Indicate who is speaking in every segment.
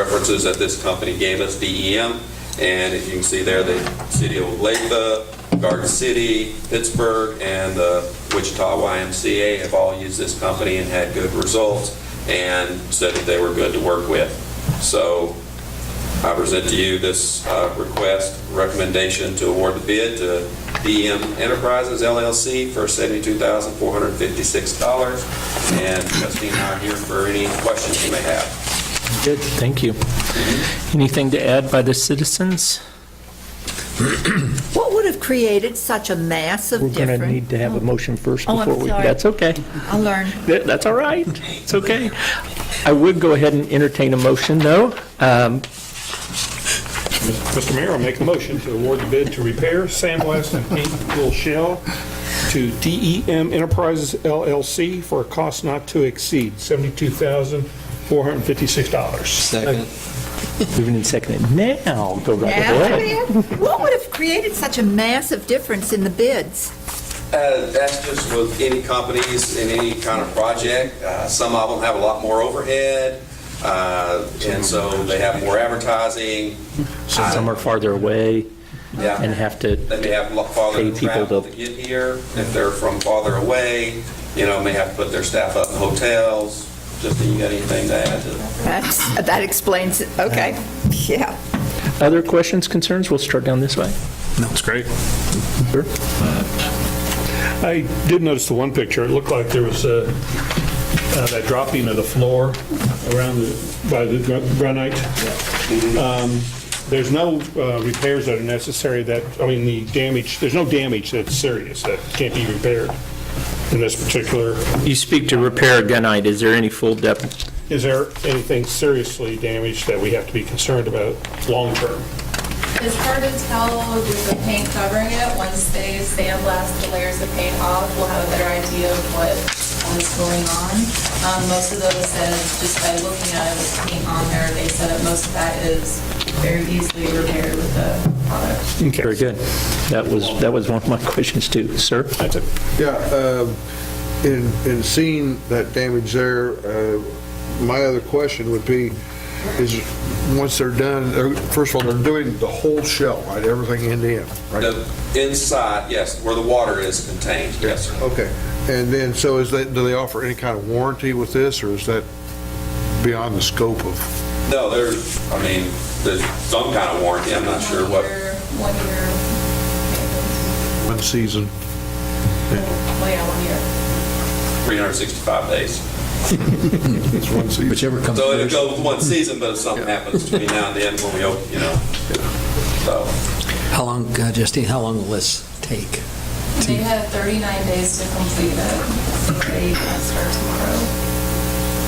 Speaker 1: references that this company gave us, DEM, and you can see there, the city of Olathe, Garden City, Pittsburgh, and the Wichita YMCA have all used this company and had good results, and said that they were good to work with. So I present to you this uh, request, recommendation to award the bid to DM Enterprises LLC for $72,456. And Justine and I are here for any questions you may have.
Speaker 2: Good, thank you. Anything to add by the citizens?
Speaker 3: What would have created such a massive
Speaker 4: We're
Speaker 3: difference?
Speaker 4: going to need to have a motion first
Speaker 3: Oh, I'm
Speaker 4: before we...
Speaker 3: sorry.
Speaker 2: That's okay.
Speaker 3: I'll learn.
Speaker 2: That- That's all right. It's okay. I would go ahead and entertain a motion, though. Um,
Speaker 5: Mr. Mayor, I'll make a motion to award the bid to repair, sandblast, and paint Will Shell to DEM Enterprises LLC for a cost not to exceed $72,456.
Speaker 6: Second.
Speaker 2: Moving and seconded. Now, go right ahead.
Speaker 3: Yeah, man. What would have created such a massive difference in the bids?
Speaker 1: Uh, That's just with any companies in any kind of project. Uh, Some of them have a lot more overhead, uh, and so they have more advertising.
Speaker 2: Some are farther away
Speaker 1: Yeah.
Speaker 2: and have to,
Speaker 1: They may have lo- farther
Speaker 2: Pay people
Speaker 1: travel
Speaker 2: to-
Speaker 1: to get here. If they're from farther away, you know, may have to put their staff up in hotels. Justine, you got anything to add to that?
Speaker 3: That's, that explains it, okay, yeah.
Speaker 2: other questions, concerns? We'll start down this way.
Speaker 5: That's great. I did notice the one picture, it looked like there was uh, uh, that dropping of the floor around, the by the gr- granite. Um, There's no uh, repairs that are necessary that, I mean, the damage, there's no damage that's serious that can't be repaired in this particular.
Speaker 2: You speak to repair gunite. Is there any full depth?
Speaker 5: Is there anything seriously damaged that we have to be concerned about long-term?
Speaker 7: It's hard to tell with the paint covering it. Once they sandblast the layers of paint off, we'll have a better idea of what is going on. Um, Most of those said, just by looking at it with paint on there, they said that most of that is very easily repaired with the product.
Speaker 2: Very good. That was, that was one of my questions, too. Sir?
Speaker 5: That's it.
Speaker 8: Yeah, um, in, in seeing that damage there, uh, my other question would be, is, once they're done, they're- first of all, they're doing the whole shell, right, everything end to end, right?
Speaker 1: The inside, yes, where the water is contained, yes, sir.
Speaker 8: Okay, and then, so is that, do they offer any kind of warranty with this, or is that beyond the scope of?
Speaker 1: No, there's, I mean, there's some kind of warranty, I'm not sure what,
Speaker 7: One year, one year.
Speaker 8: One season.
Speaker 7: Well, yeah, one year.
Speaker 1: 365 days.
Speaker 8: It's one season.
Speaker 6: Whichever comes
Speaker 1: So it'll
Speaker 6: first.
Speaker 1: go with one season, but if something happens between now and then, when we open, you know, so.
Speaker 6: How long, uh, Justine, how long will this take?
Speaker 7: They had 39 days to complete it. They can start tomorrow.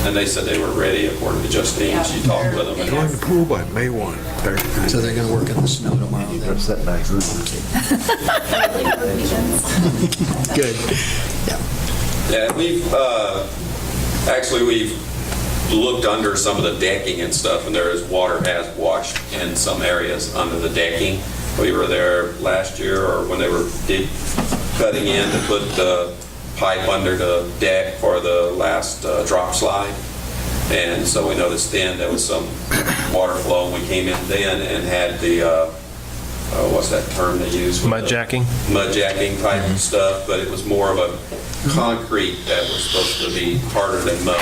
Speaker 1: And they said they were ready according to Justine, she talked with them. and-
Speaker 8: Join the pool by May 1.
Speaker 6: So they're going to work in the snow tomorrow then?
Speaker 8: Good.
Speaker 1: Yeah, and we've, uh, actually, we've looked under some of the decking and stuff, and there is, water has washed in some areas under the decking. We were there last year, or when they were dig- cutting in to put the pipe under the deck for the last uh, drop slide. And so we noticed then there was some water flow, and we came in then and had the, uh, uh, what's that term they use? Mud jacking? Mud jacking type of stuff, but it was more of a concrete that was supposed to be harder than mud,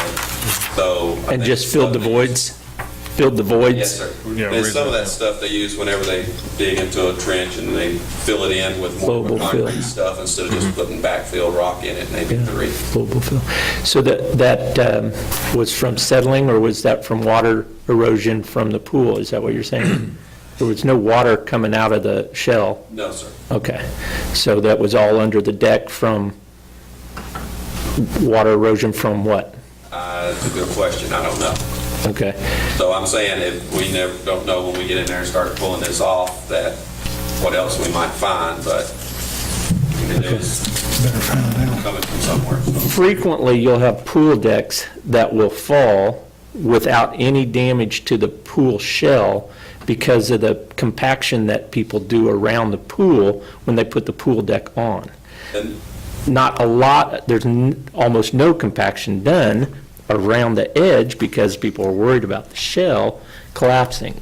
Speaker 1: so. I
Speaker 2: And
Speaker 1: think
Speaker 2: just filled the
Speaker 1: some-
Speaker 2: voids? Filled the voids?
Speaker 1: Yes, sir. And some of that stuff they use whenever they dig into a trench and they fill it in with more
Speaker 2: Flowable fill. Mm-hmm.
Speaker 1: concrete stuff instead of just putting backfill rock in it, maybe three.
Speaker 2: Global fill. So that, that um, was from settling, or was that from water erosion from the pool? Is that what you're saying? There was no water coming out of the shell?
Speaker 1: No, sir.
Speaker 2: Okay. So that was all under the deck from water erosion from what?
Speaker 1: Uh, That's a good question. I don't know.
Speaker 2: Okay.
Speaker 1: So I'm saying if we never, don't know when we get in there and start pulling this off, that what else we might find, but I mean, it was coming from somewhere. so.
Speaker 2: Frequently, you'll have pool decks that will fall without any damage to the pool shell because of the compaction that people do around the pool when they put the pool deck on.
Speaker 1: And
Speaker 2: not a lot, there's n- almost no compaction done around the edge because people are worried about the shell collapsing.